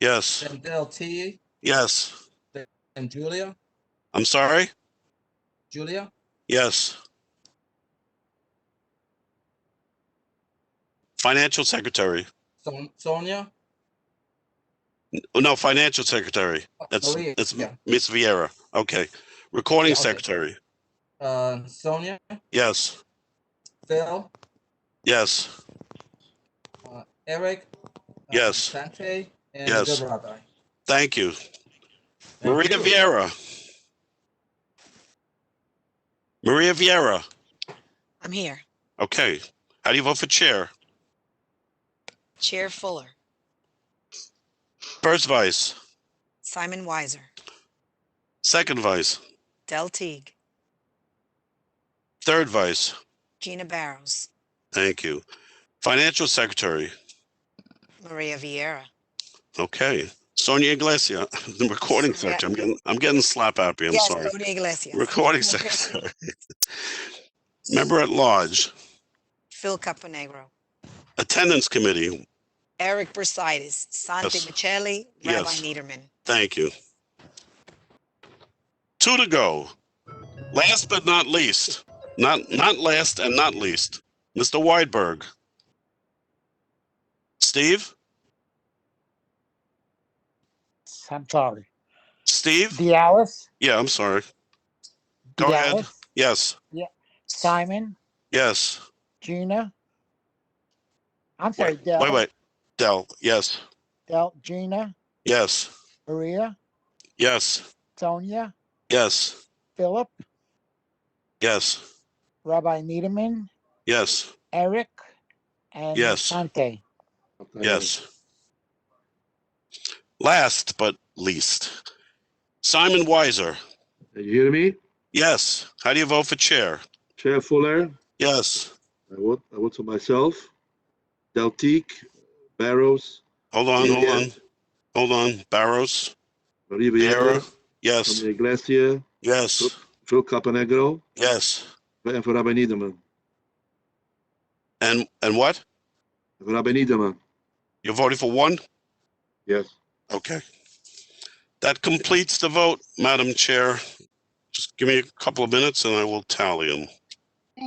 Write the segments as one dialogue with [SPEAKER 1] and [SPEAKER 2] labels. [SPEAKER 1] Yes,
[SPEAKER 2] then Del T,
[SPEAKER 1] yes.
[SPEAKER 2] then Julia,
[SPEAKER 1] I'm sorry?
[SPEAKER 2] Julia,
[SPEAKER 1] Yes. Financial secretary.
[SPEAKER 2] Son- Sonia.
[SPEAKER 1] Oh, No, financial secretary.
[SPEAKER 2] uh,
[SPEAKER 1] That's,
[SPEAKER 2] Maria,
[SPEAKER 1] that's
[SPEAKER 2] yeah,
[SPEAKER 1] Miss Viera. Okay. Recording
[SPEAKER 2] Yeah, okay.
[SPEAKER 1] secretary.
[SPEAKER 2] Uh, Sonia,
[SPEAKER 1] Yes,
[SPEAKER 2] Phil,
[SPEAKER 1] yes,
[SPEAKER 2] uh, Eric. uh,
[SPEAKER 1] Yes.
[SPEAKER 2] Sante, and
[SPEAKER 1] Yes.
[SPEAKER 2] the rabbi.
[SPEAKER 1] thank you.
[SPEAKER 2] Thank
[SPEAKER 1] Maria
[SPEAKER 2] you.
[SPEAKER 1] Viera. Maria Viera.
[SPEAKER 3] I'm here.
[SPEAKER 1] Okay. How do you vote for chair?
[SPEAKER 3] Chair Fuller,
[SPEAKER 1] First vice,
[SPEAKER 3] Simon Weiser,
[SPEAKER 1] second vice,
[SPEAKER 3] Del Teague,
[SPEAKER 1] third vice.
[SPEAKER 3] Gina Barrows,
[SPEAKER 1] Thank you. Financial secretary.
[SPEAKER 3] Maria Vieira,
[SPEAKER 1] Okay. Sonia Iglesias, the recording
[SPEAKER 3] Sonia-
[SPEAKER 1] secretary. I'm getting, I'm getting slap happy. I'm
[SPEAKER 3] yes,
[SPEAKER 1] sorry.
[SPEAKER 3] Tony Iglesias,
[SPEAKER 1] Recording secretary. Member at large,
[SPEAKER 3] Phil Caponegro,
[SPEAKER 1] attendance committee.
[SPEAKER 3] Eric Bersidis, Santi
[SPEAKER 1] Yes.
[SPEAKER 3] Michelli, Rabbi
[SPEAKER 1] Yes.
[SPEAKER 3] Niederman.
[SPEAKER 1] Thank you. Two to go. Last but not least, not not last and not least, Mr. Weidberg. Steve,
[SPEAKER 4] I'm sorry.
[SPEAKER 1] Steve.
[SPEAKER 4] Dallas,
[SPEAKER 1] Yeah, I'm sorry. Go ahead.
[SPEAKER 4] Dallas,
[SPEAKER 1] Yes,
[SPEAKER 4] Simon,
[SPEAKER 1] yes.
[SPEAKER 4] Gina. I'm sorry,
[SPEAKER 1] Wait,
[SPEAKER 4] Del,
[SPEAKER 1] wait, wait. Dell. Yes,
[SPEAKER 4] Del, Gina,
[SPEAKER 1] yes,
[SPEAKER 4] Maria,
[SPEAKER 1] yes,
[SPEAKER 4] Sonia,
[SPEAKER 1] yes,
[SPEAKER 4] Philip,
[SPEAKER 1] yes,
[SPEAKER 4] Rabbi Needleman,
[SPEAKER 1] yes,
[SPEAKER 4] Eric, and
[SPEAKER 1] Yes.
[SPEAKER 4] Sante.
[SPEAKER 1] yes. Last but least, Simon Weiser.
[SPEAKER 5] Can you hear me?
[SPEAKER 1] Yes. How do you vote for chair?
[SPEAKER 5] Chair Fuller,
[SPEAKER 1] Yes.
[SPEAKER 5] I vote, I vote for myself. Deltique, Barrows.
[SPEAKER 1] Hold on, hold on.
[SPEAKER 5] Villiers,
[SPEAKER 1] Hold on, Barrows,
[SPEAKER 5] Maria
[SPEAKER 1] Viera,
[SPEAKER 5] Vieira,
[SPEAKER 1] yes,
[SPEAKER 5] Tony Iglesias,
[SPEAKER 1] yes,
[SPEAKER 5] Phil Caponegro,
[SPEAKER 1] yes,
[SPEAKER 5] and for Rabbi Niederman.
[SPEAKER 1] and and what?
[SPEAKER 5] For Rabbi Niederman,
[SPEAKER 1] You're voting for one?
[SPEAKER 5] yes.
[SPEAKER 1] Okay. That completes the vote, Madam Chair. Just give me a couple of minutes and I will tally them.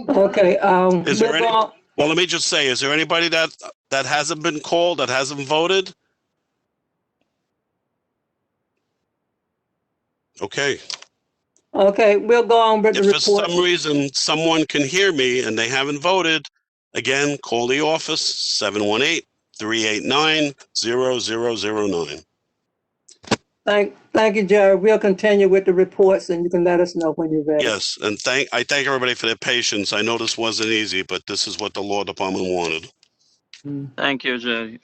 [SPEAKER 6] Okay, um,
[SPEAKER 1] Is there
[SPEAKER 6] we're
[SPEAKER 1] any-
[SPEAKER 6] going,
[SPEAKER 1] Well, let me just say, is there anybody that that hasn't been called, that hasn't voted? Okay,
[SPEAKER 6] okay, we'll go on with the
[SPEAKER 1] if for
[SPEAKER 6] report.
[SPEAKER 1] some reason someone can hear me and they haven't voted, again, call the office, 718 389 0009.
[SPEAKER 6] Thank, thank you, Jerry. We'll continue with the reports and you can let us know when you're ready.
[SPEAKER 1] Yes, and thank, I thank everybody for their patience. I know this wasn't easy, but this is what the law department wanted.
[SPEAKER 7] Thank you, Jerry.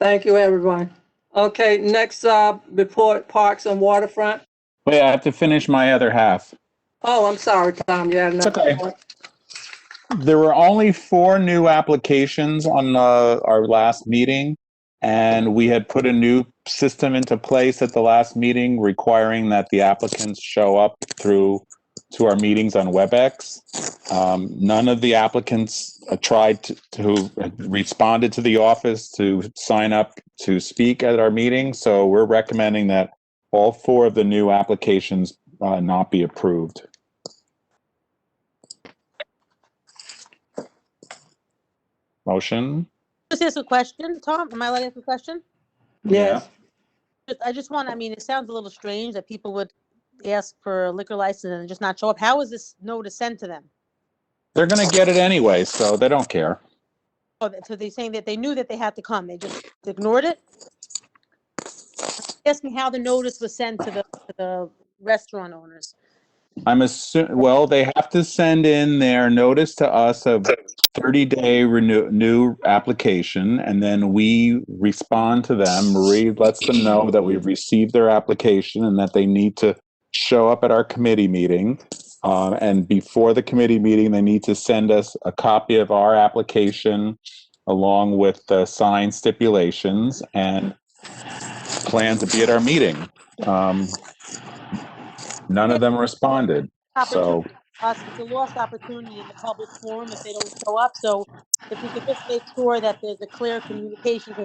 [SPEAKER 6] Thank you, everyone. Okay, next, uh, report Parks and Waterfront.
[SPEAKER 8] Wait, I have to finish my other half.
[SPEAKER 6] Oh, I'm sorry, Tom, you had
[SPEAKER 8] It's
[SPEAKER 6] another
[SPEAKER 8] okay.
[SPEAKER 6] report.
[SPEAKER 8] There were only four new applications on uh, our last meeting, and we had put a new system into place at the last meeting requiring that the applicants show up through to our meetings on WebEx. Um, none of the applicants uh, tried to, to who responded to the office to sign up to speak at our meeting, so we're recommending that all four of the new applications uh, not be approved. Motion?
[SPEAKER 9] Just ask a question, Tom. Am I allowed to ask a question?
[SPEAKER 6] Yes,
[SPEAKER 9] Just- I just want, I mean, it sounds a little strange that people would ask for a liquor license and just not show up. How is this notice sent to them?
[SPEAKER 8] They're gonna get it anyway, so they don't care.
[SPEAKER 9] Oh, that- so they're saying that they knew that they had to come. They just ignored it? Ask me how the notice was sent to the, to the restaurant owners.
[SPEAKER 8] I'm assuming, well, they have to send in their notice to us of thirty day renew, new application, and then we respond to them. Marie lets them know that we've received their application and that they need to show up at our committee meeting. Um, and before the committee meeting, they need to send us a copy of our application along with the signed stipulations and plan to be at our meeting. Um, none of them responded.
[SPEAKER 9] Opportunity
[SPEAKER 8] So,
[SPEAKER 9] for us, it's a lost opportunity in the public forum if they don't show up. So if we could just make sure that there's a clear communication to